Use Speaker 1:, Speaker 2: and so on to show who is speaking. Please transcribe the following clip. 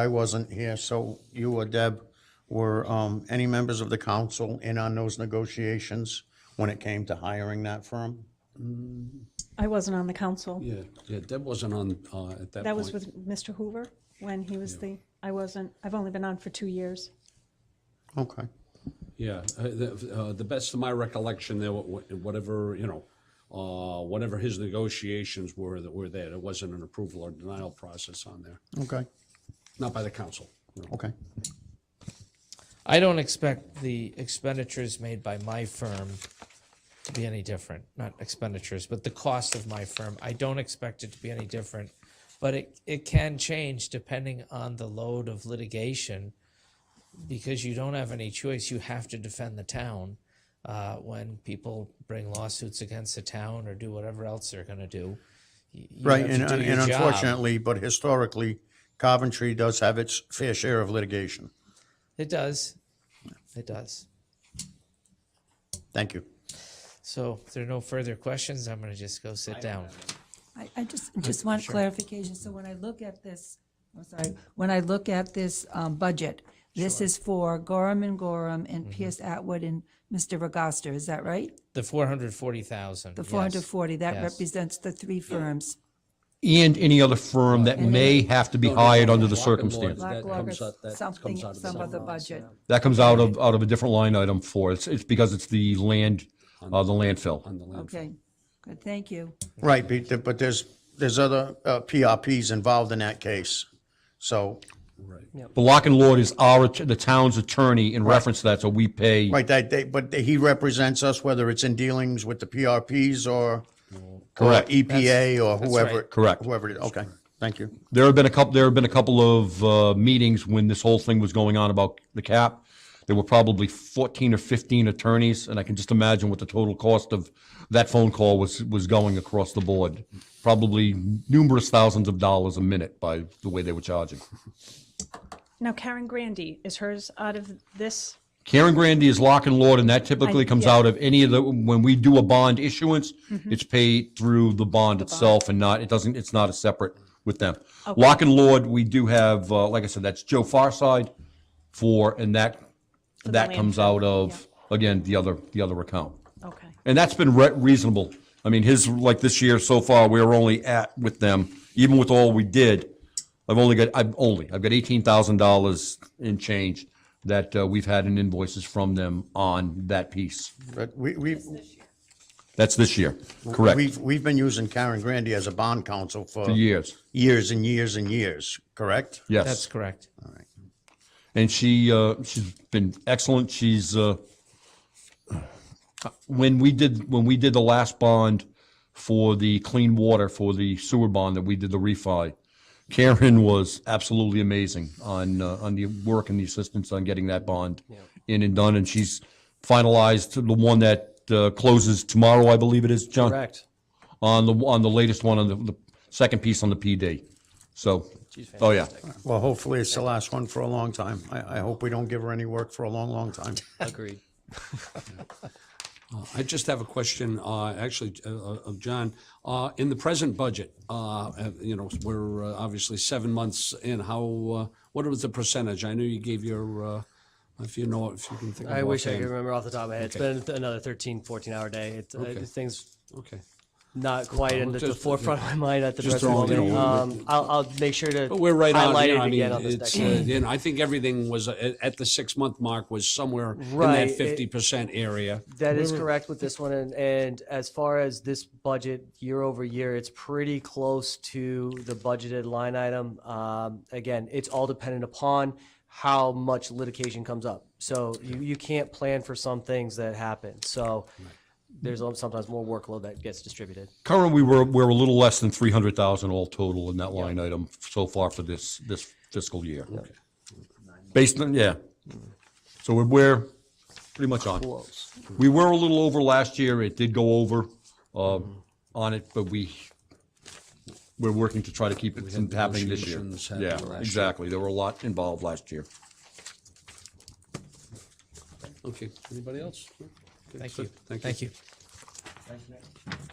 Speaker 1: I wasn't here, so you or Deb, were um, any members of the council in on those negotiations when it came to hiring that firm?
Speaker 2: I wasn't on the council.
Speaker 3: Yeah, yeah, Deb wasn't on, uh, at that
Speaker 2: That was
Speaker 3: point.
Speaker 2: with Mr. Hoover when he was the, I wasn't, I've only been on for two years.
Speaker 1: Okay.
Speaker 3: Yeah, uh, the, uh, the best of my recollection, there, wa- wa- whatever, you know, uh, whatever his negotiations were that were there, there wasn't an approval or denial process on there,
Speaker 1: Okay.
Speaker 3: not by the council. you know.
Speaker 1: Okay.
Speaker 4: I don't expect the expenditures made by my firm to be any different. Not expenditures, but the cost of my firm. I don't expect it to be any different. But it, it can change depending on the load of litigation because you don't have any choice. You have to defend the town uh, when people bring lawsuits against the town or do whatever else they're going to do. You you
Speaker 1: Right,
Speaker 4: have
Speaker 1: and,
Speaker 4: to do
Speaker 1: and
Speaker 4: your job.
Speaker 1: unfortunately, but historically, Coventry does have its fair share of litigation.
Speaker 4: It does. It does.
Speaker 1: Thank you.
Speaker 4: So if there are no further questions, I'm going to just go sit down.
Speaker 5: I, I just, just want clarification, so when I look at this, I'm sorry, when I look at this, um, budget, this is for Gorham and Gorham
Speaker 3: Mm-hmm.
Speaker 5: and Pierce Atwood and Mr. Regosta, is that right?
Speaker 4: The four hundred forty thousand.
Speaker 5: The four hundred forty, that
Speaker 4: Yes.
Speaker 5: represents the three firms.
Speaker 6: and any other firm that may have to be hired under the
Speaker 3: Lock and Lords,
Speaker 6: circumstance.
Speaker 3: That
Speaker 5: Black Log
Speaker 3: comes out- that
Speaker 5: something,
Speaker 3: comes out of the
Speaker 5: some
Speaker 3: same
Speaker 5: other
Speaker 3: line.
Speaker 5: budget.
Speaker 6: That comes out of, out of a different line item for, it's, it's because it's the land, uh, the landfill.
Speaker 3: On the landfill.
Speaker 5: Okay, good, thank you.
Speaker 1: Right, but th- but there's, there's other uh, PRPs involved in that case. So,
Speaker 6: But Lock and Lord is our, att- the town's attorney in reference to that, so we pay.
Speaker 1: right, that, they, but he represents us, whether it's in dealings with the PRPs or or
Speaker 6: Correct.
Speaker 1: EPA or whoever.
Speaker 4: right.
Speaker 6: Correct.
Speaker 1: Whoever it is. Okay, thank you.
Speaker 6: There have been a couple, there have been a couple of, uh, meetings when this whole thing was going on about the cap. There were probably fourteen or fifteen attorneys, and I can just imagine what the total cost of that phone call was, was going across the board. Probably numerous thousands of dollars a minute by the way they were charging.
Speaker 2: Now Karen Grandy, is hers out of this?
Speaker 6: Karen Grandy is lock and lord, and that typically comes
Speaker 2: yeah.
Speaker 6: out of any of the, when we do a bond issuance, it's paid through Mm-hmm. the bond itself and not, it doesn't, it's not a separate with them. Lock and lord, we do have, uh, like I said, that's Joe Farside for, and that, that comes out of, again, the other, the other account.
Speaker 2: Okay,
Speaker 6: And that's been re- reasonable. I mean, his, like this year so far, we're only at with them, even with all we did, I've only got, I've only, I've got eighteen thousand dollars in change that uh, we've had in invoices from them on that piece.
Speaker 1: But we, we've,
Speaker 6: That's this year, correct,
Speaker 1: we've, we've been using Karen Grandy as a bond counsel for
Speaker 6: for years,
Speaker 1: years and years and years, correct?
Speaker 4: That's
Speaker 6: yes.
Speaker 4: correct.
Speaker 6: And she, uh, she's been excellent, she's, uh, when we did, when we did the last bond for the clean water, for the sewer bond that we did the refi, Karen was absolutely amazing on, uh, on the work and the assistance on getting that bond in and done. And she's finalized the one that uh, closes tomorrow, I believe it is, John?
Speaker 7: Correct.
Speaker 6: On the, on the latest one, on the, the second piece on the PD. So, oh yeah,
Speaker 1: Well, hopefully it's the last one for a long time. I, I hope we don't give her any work for a long, long time.
Speaker 7: Agreed.
Speaker 3: I just have a question, uh, actually, uh, of John. Uh, In the present budget, uh, uh, you know, we're uh, obviously seven months in, how, uh, what was the percentage? I know you gave your, uh, if you know, if you can think of
Speaker 7: I wish I could
Speaker 3: offhand.
Speaker 7: remember off the top of my head. It's been th- another 13, 14 hour day. It's, uh,
Speaker 3: Okay.
Speaker 7: this thing's
Speaker 3: Okay.
Speaker 7: not quite in the, the
Speaker 3: Just-
Speaker 7: forefront of my mind at the
Speaker 3: Just
Speaker 7: present
Speaker 3: throwing it
Speaker 7: moment.
Speaker 3: over.
Speaker 7: Um, I'll, I'll make sure to
Speaker 3: But we're right on,
Speaker 7: highlight
Speaker 3: you know,
Speaker 7: it
Speaker 3: I
Speaker 7: again
Speaker 3: mean,
Speaker 7: on this
Speaker 3: it's,
Speaker 7: next
Speaker 3: uh,
Speaker 7: one.
Speaker 3: and I think everything was, uh, at the six-month mark was somewhere in
Speaker 7: Right,
Speaker 3: that
Speaker 7: it-
Speaker 3: fifty percent area.
Speaker 7: That is correct with this one, and, and as far as this budget year over year, it's pretty close to the budgeted line item. Um, again, it's all dependent upon how much litigation comes up. So you, you can't plan for some things that happen, so there's sometimes more workload that gets distributed.
Speaker 6: Current, we were, we're a little less than three hundred thousand all total in that line item so far for this, this fiscal year. Based on, yeah. So we're, we're pretty much on. We were a little over last year. It did go over, um, on it, but we, we're working to try to keep it from happening this year.
Speaker 3: negotiations happening
Speaker 6: Yeah,
Speaker 3: last year.
Speaker 6: exactly. There were a lot involved last year.
Speaker 3: Okay, anybody else?
Speaker 4: Thank you.
Speaker 3: Thank you.
Speaker 4: Thank you.